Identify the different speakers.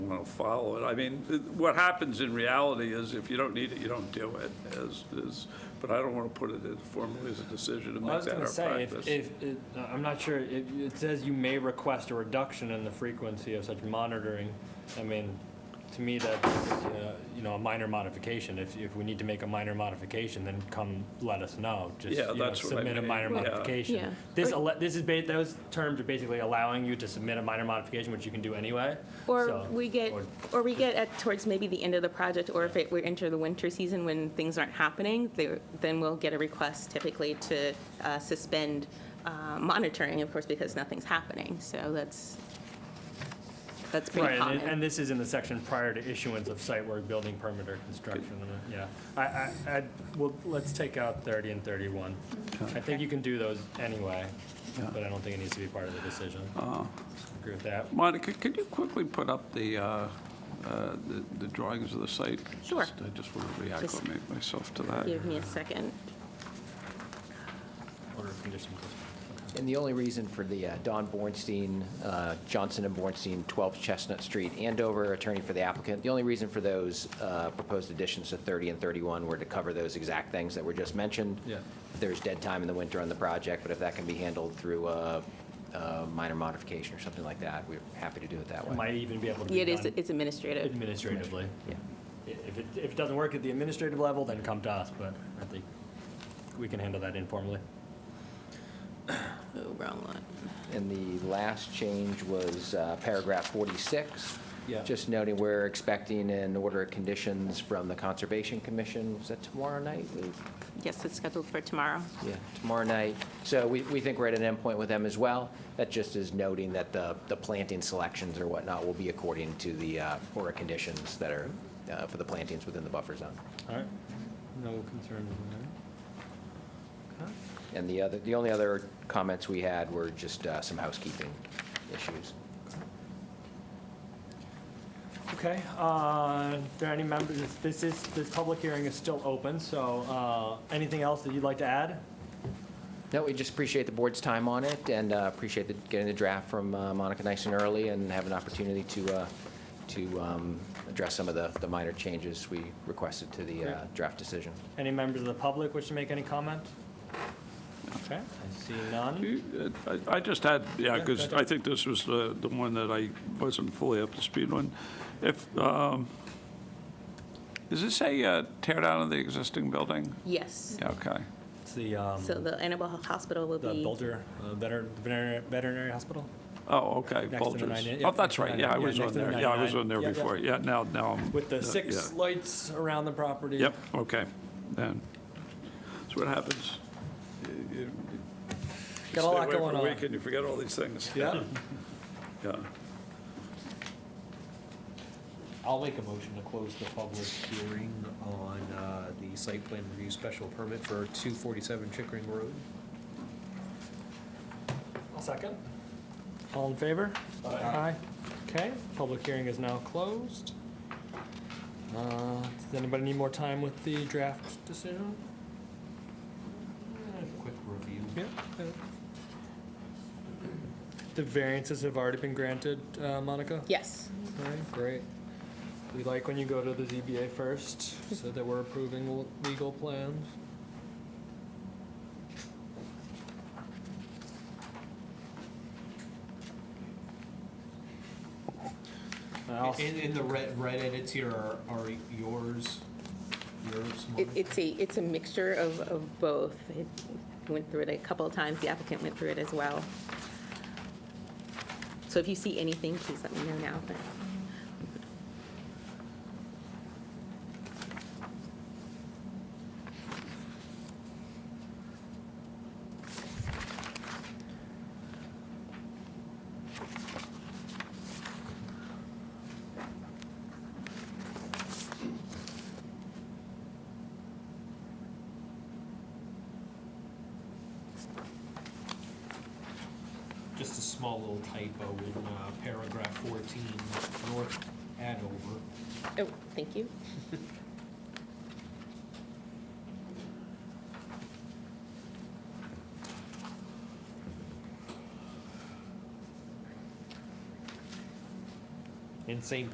Speaker 1: want to follow it. I mean, th- what happens in reality is if you don't need it, you don't do it, is, is, but I don't want to put it in formally as a decision and
Speaker 2: Well,
Speaker 1: make
Speaker 2: I was
Speaker 1: that
Speaker 2: gonna
Speaker 1: our
Speaker 2: say,
Speaker 1: practice.
Speaker 2: if, if, it- uh, I'm not sure, it, it says you may request a reduction in the frequency of such monitoring. I mean, to me, that's, uh, you know, a minor modification. If, if we need to make a minor modification, then come let us know. Just,
Speaker 1: Yeah,
Speaker 2: you know,
Speaker 1: that's what I
Speaker 2: Submit a
Speaker 1: mean,
Speaker 2: minor
Speaker 1: yeah.
Speaker 2: modification.
Speaker 3: Yeah.
Speaker 2: This, ele- this is, ba- those terms are basically allowing you to submit a minor modification, which you can do anyway.
Speaker 3: Or
Speaker 2: So-
Speaker 3: we get,
Speaker 2: or-
Speaker 3: or we get at, towards maybe the end of the project, or if it, we enter the winter season when things aren't happening, they- then we'll get a request typically to uh, suspend uh, monitoring, of course, because nothing's happening. So that's, that's pretty
Speaker 2: Right, and-
Speaker 3: common.
Speaker 2: and this is in the section prior to issuance of site work, building permit, or construction, and, uh, yeah. I, I, I, well, let's take out 30 and 31. I think you can do those anyway, but I don't think it needs to be part of the decision.
Speaker 4: Uh-huh.
Speaker 2: Agree with that?
Speaker 1: Monica, could you quickly put up the, uh, uh, the- the drawings of the site?
Speaker 3: Sure.
Speaker 1: Just- I just want to
Speaker 3: Just-
Speaker 1: reacclimate myself to that.
Speaker 3: Give me a second.
Speaker 2: Order of conditions.
Speaker 4: And the only reason for the uh, Don Bornstein, uh, Johnson and Bornstein, 12 Chestnut Street, Andover, attorney for the applicant, the only reason for those uh, proposed additions to 30 and 31 were to cover those exact things that were just mentioned.
Speaker 2: Yeah.
Speaker 4: There's dead time in the winter on the project, but if that can be handled through a a minor modification or something like that, we're happy to do it that way.
Speaker 2: Might even be able to
Speaker 3: Yeah,
Speaker 2: be
Speaker 3: It is,
Speaker 2: done
Speaker 3: it's administrative.
Speaker 2: administratively.
Speaker 4: Yeah.
Speaker 2: I- If it, if it doesn't work at the administrative level, then come to us, but I think we can handle that informally.
Speaker 3: Oh, wrong one.
Speaker 4: And the last change was uh, paragraph 46.
Speaker 2: Yeah.
Speaker 4: Just noting we're expecting an order of conditions from the Conservation Commission. Is that tomorrow night? We-
Speaker 3: Yes, it's scheduled for tomorrow.
Speaker 4: Yeah, tomorrow night. So we, we think we're at an endpoint with them as well. That just is noting that the, the planting selections or whatnot will be according to the uh, order conditions that are uh, for the plantings within the buffer zone.
Speaker 2: All right? No concerns there? Okay.
Speaker 4: And the other, the only other comments we had were just uh, some housekeeping issues.
Speaker 2: Okay, uh, are there any members, this is, this public hearing is still open, so uh, anything else that you'd like to add?
Speaker 4: No, we just appreciate the board's time on it and uh, appreciate the- getting the draft from uh, Monica nice and early and have an opportunity to, uh, to um, address some of the, the minor changes we requested to the uh,
Speaker 2: Great.
Speaker 4: draft decision.
Speaker 2: Any members of the public wish to make any comment? Okay, I see none.
Speaker 1: You- uh, I I just had, yeah,
Speaker 2: Yeah,
Speaker 1: because
Speaker 2: go
Speaker 1: I
Speaker 2: ahead.
Speaker 1: think this was the, the one that I wasn't fully up to speed on. If, um, is this a uh, tear down of the existing building?
Speaker 3: Yes.
Speaker 1: Yeah, Okay.
Speaker 2: It's the, um,
Speaker 3: So the Annabelle Hospital will
Speaker 2: the
Speaker 3: be.
Speaker 2: Bulger uh, veter- Veterinary veterinary Hospital?
Speaker 1: Oh, okay,
Speaker 2: Next to the
Speaker 1: Bulger's.
Speaker 2: 99, yeah,
Speaker 1: Oh, that's
Speaker 2: next to
Speaker 1: right, yeah, I
Speaker 2: 99,
Speaker 1: was
Speaker 2: yeah,
Speaker 1: on
Speaker 2: next to the
Speaker 1: there, yeah, I was
Speaker 2: 99.
Speaker 1: on there
Speaker 2: Yeah, yeah.
Speaker 1: before, yeah, now, now. I'm-
Speaker 2: With
Speaker 1: uh,
Speaker 2: the six
Speaker 1: yeah.
Speaker 2: lights around the property?
Speaker 1: Yep, okay, then, that's what happens. You- you- you
Speaker 2: Got a lot
Speaker 1: Stay away
Speaker 2: going
Speaker 1: for a
Speaker 2: on.
Speaker 1: week and you forget all these things.
Speaker 2: Yeah?
Speaker 1: Yeah.
Speaker 5: I'll make a motion to close the public hearing on uh, the site plan review special permit for 247 Chickering Road.
Speaker 2: Second. All in favor? Aye. Okay, public hearing is now closed. Uh, Does anybody need more time with the draft decision?
Speaker 5: Quick review.
Speaker 2: Yeah. uh, The variances have already been granted, uh, Monica?
Speaker 3: Yes.
Speaker 2: All right, great. We like when you go to the ZBA first, so that we're approving l- legal plans. And I'll-
Speaker 5: And, and the red, red edits here are, are yours, yours,
Speaker 3: It-
Speaker 5: Monica?
Speaker 3: It's a, it's a mixture of, of both. It Went through it a couple of times, the applicant went through it as well. So if you see anything, please let me know now. but-
Speaker 5: Just a small little typo in uh, paragraph 14, North Adover.
Speaker 3: Oh, thank you.
Speaker 5: And same